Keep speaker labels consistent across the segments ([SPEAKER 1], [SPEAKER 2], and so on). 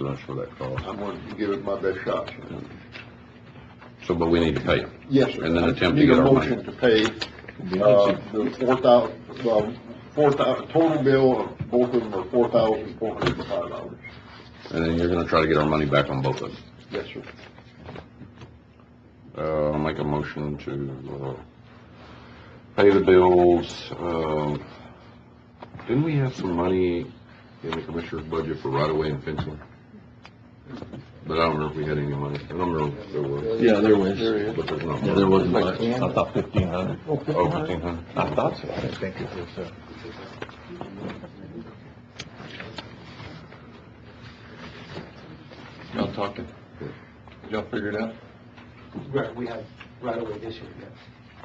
[SPEAKER 1] lunch for that cost.
[SPEAKER 2] I'm going to give it my best shot.
[SPEAKER 1] So, but we need to pay them.
[SPEAKER 2] Yes, sir.
[SPEAKER 1] And then attempt to get our money.
[SPEAKER 2] Need a motion to pay, uh, the four thou, well, four thou, total bill of both of them are four thousand four hundred and five dollars.
[SPEAKER 1] And then you're gonna try to get our money back on both of them.
[SPEAKER 2] Yes, sir.
[SPEAKER 1] Uh, I'll make a motion to, uh, pay the bills, um, didn't we have some money in the commissioner's budget for right-of-way and fencing? But I don't know if we had any money, I don't know if there was,
[SPEAKER 3] Yeah, there was.
[SPEAKER 1] but there's not.
[SPEAKER 3] Yeah, there was much.
[SPEAKER 4] I thought fifteen hundred.
[SPEAKER 1] Oh, fifteen hundred?
[SPEAKER 4] I thought so. I didn't think it was, uh.
[SPEAKER 3] Y'all talking? Y'all figured out?
[SPEAKER 5] Right, we have right away this year, yes.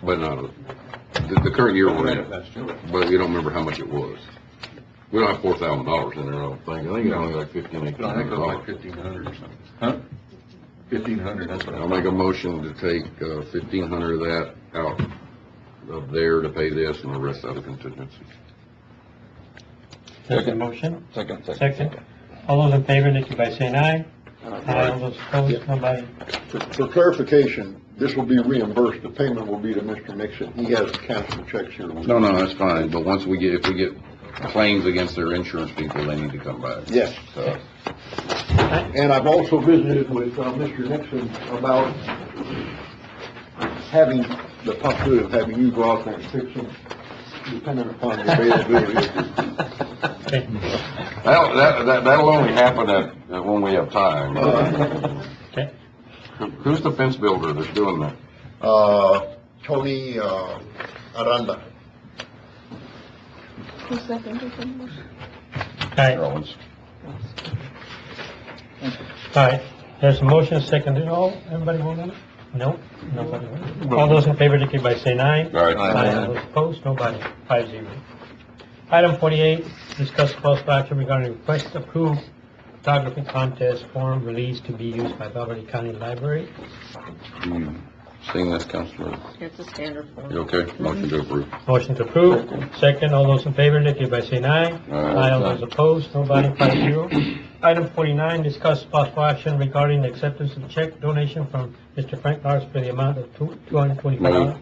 [SPEAKER 1] But not, the, the current year we're in, but we don't remember how much it was. We don't have four thousand dollars in there, I don't think, I think it's only like fifteen, eighteen
[SPEAKER 3] No, I think
[SPEAKER 1] hundred
[SPEAKER 3] it was like
[SPEAKER 1] dollars.
[SPEAKER 3] fifteen hundred or something. Huh? Fifteen hundred, that's what I
[SPEAKER 1] I'll make a motion to take, uh, fifteen hundred of that out of there to pay this and the rest out of contingency.
[SPEAKER 4] Second motion?
[SPEAKER 3] Second,
[SPEAKER 6] Second. All those in favor, indicate by saying aye. Aye. All those
[SPEAKER 2] Yeah.
[SPEAKER 6] opposed, nobody.
[SPEAKER 2] For for clarification, this will be reimbursed, the payment will be to Mr. Nixon, he has canceled checks here.
[SPEAKER 1] No, no, that's fine, but once we get, if we get claims against their insurance people, they need to come back.
[SPEAKER 2] Yes.
[SPEAKER 1] So,
[SPEAKER 2] And I've also visited with, uh, Mr. Nixon about having, the possibility of having you go out there and fix them, depending upon the availability of the
[SPEAKER 1] That'll, that, that, that'll only happen at, at when we have time.
[SPEAKER 6] Okay.
[SPEAKER 1] Who- Who's the fence builder that's doing that?
[SPEAKER 2] uh, Tony, uh, Aranda.
[SPEAKER 7] Who seconded the motion?
[SPEAKER 6] Aye.
[SPEAKER 1] Rollins.
[SPEAKER 6] Aye. There's a motion seconded. All, everybody vote on it? No, nobody. voted. All those in favor, indicate by saying aye.
[SPEAKER 1] All right.
[SPEAKER 6] Aye. All those opposed, nobody. Five zero. Item forty-eight, discuss possible action regarding request approved photography contest form released to be used by Belverde County Library.
[SPEAKER 1] You Seeing this, Councilor,
[SPEAKER 7] It's a standard form.
[SPEAKER 1] you okay? Motion to approve.
[SPEAKER 6] Motion to approve. Second, all those in favor, indicate by saying aye.
[SPEAKER 1] Aye.
[SPEAKER 6] All those opposed, nobody, five zero. Item forty-nine, discuss possible action regarding the acceptance of check donation from Mr. Frank Lars for the amount of two, two hundred and twenty-five dollars.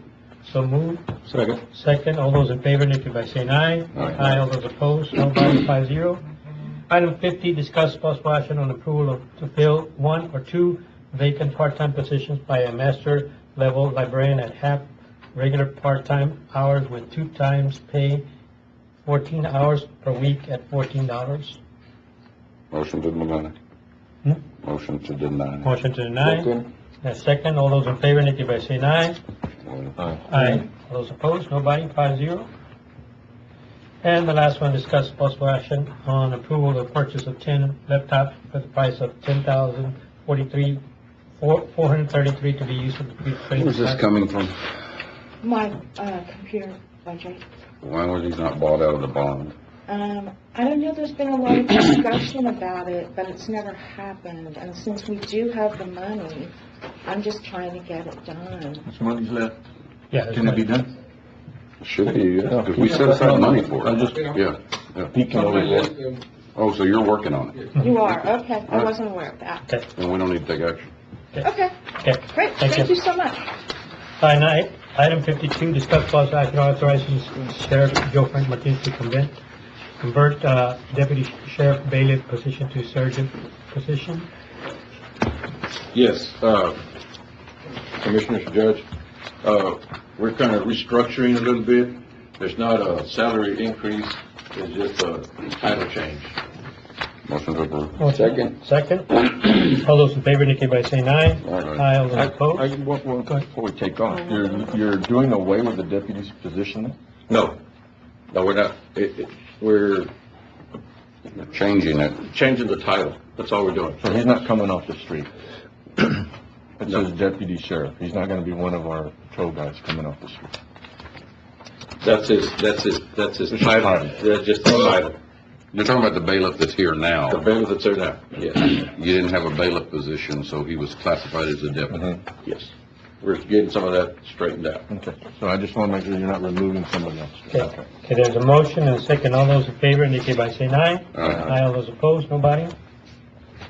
[SPEAKER 6] So moved.
[SPEAKER 4] Second.
[SPEAKER 6] Second, all those in favor, indicate by saying aye.
[SPEAKER 1] Aye.
[SPEAKER 6] all those opposed, nobody, five zero. Item fifty, discuss possible action on approval of, to fill one or two vacant part-time positions by a master level librarian at half regular part-time hours with two times pay, fourteen hours per week at fourteen dollars.
[SPEAKER 1] Motion to deny.
[SPEAKER 6] Hmm?
[SPEAKER 1] Motion to deny.
[SPEAKER 6] Motion to deny. And second, all those in favor, indicate by saying aye. Aye. All those opposed, nobody, five zero. And the last one, discuss possible action on approval of purchase of ten laptops for the price of ten thousand forty-three, four, four hundred thirty-three to be used for the pre-training.
[SPEAKER 1] Where's this coming from?
[SPEAKER 8] My, uh, computer budget.
[SPEAKER 1] Why was he not bought out of the bond?
[SPEAKER 8] Um, I don't know, there's been a lot of discussion about it, but it's never happened, and since we do have the money, I'm just trying to get it done.
[SPEAKER 3] Some money's left.
[SPEAKER 6] Yeah. that's
[SPEAKER 3] Can it be
[SPEAKER 6] right.
[SPEAKER 3] done?
[SPEAKER 1] Should be, yeah, 'cause we set aside money for
[SPEAKER 4] I'm
[SPEAKER 1] it.
[SPEAKER 4] just
[SPEAKER 1] Yeah, yeah.
[SPEAKER 4] peeking over here.
[SPEAKER 1] Oh, so you're working on it,
[SPEAKER 8] You are, okay, I wasn't aware of that.
[SPEAKER 6] Okay,
[SPEAKER 1] and we don't need to take action.
[SPEAKER 8] Okay,
[SPEAKER 6] okay.
[SPEAKER 8] great,
[SPEAKER 6] Thank
[SPEAKER 8] thank
[SPEAKER 6] you.
[SPEAKER 8] you so much.
[SPEAKER 6] Item nine, item fifty-two, discuss possible action authorizing Sheriff Joe Frank Martinez to convert, convert, uh, deputy sheriff bailiff position to sergeant position.
[SPEAKER 3] Yes, uh, Commissioners, Judge, uh, we're kind of restructuring a little bit. There's not a salary increase, it's just a title change.
[SPEAKER 1] Motion to approve.
[SPEAKER 6] Second. Second. All those in favor indicate by saying aye.
[SPEAKER 1] Aye.
[SPEAKER 6] Aye, all
[SPEAKER 4] I,
[SPEAKER 6] those
[SPEAKER 4] I,
[SPEAKER 6] opposed.
[SPEAKER 4] one- one thing before we take off, you're, you're doing away with the deputy's position?
[SPEAKER 3] No, no, we're not, it, it, we're
[SPEAKER 1] Changing it.
[SPEAKER 3] changing the title, that's all we're doing.
[SPEAKER 4] So he's not coming off the street. It says deputy sheriff. He's not gonna be one of our patrol guys coming off the street.
[SPEAKER 3] That's his, that's his, that's his
[SPEAKER 4] It's his
[SPEAKER 3] title,
[SPEAKER 4] title.
[SPEAKER 3] that's just the title,
[SPEAKER 1] You're talking about the bailiff that's here
[SPEAKER 3] the
[SPEAKER 1] now.
[SPEAKER 3] bailiff that's there now, yes,
[SPEAKER 1] You didn't have a bailiff position, so he was classified as a deputy.
[SPEAKER 3] yes. We're getting some of that straightened out.
[SPEAKER 4] Mm-hmm. Okay, so I just wanna make sure you're not removing somebody else.
[SPEAKER 6] Okay, there's a motion and a second. All those in favor indicate by saying aye.
[SPEAKER 1] Aye.
[SPEAKER 6] Aye, all those opposed, nobody.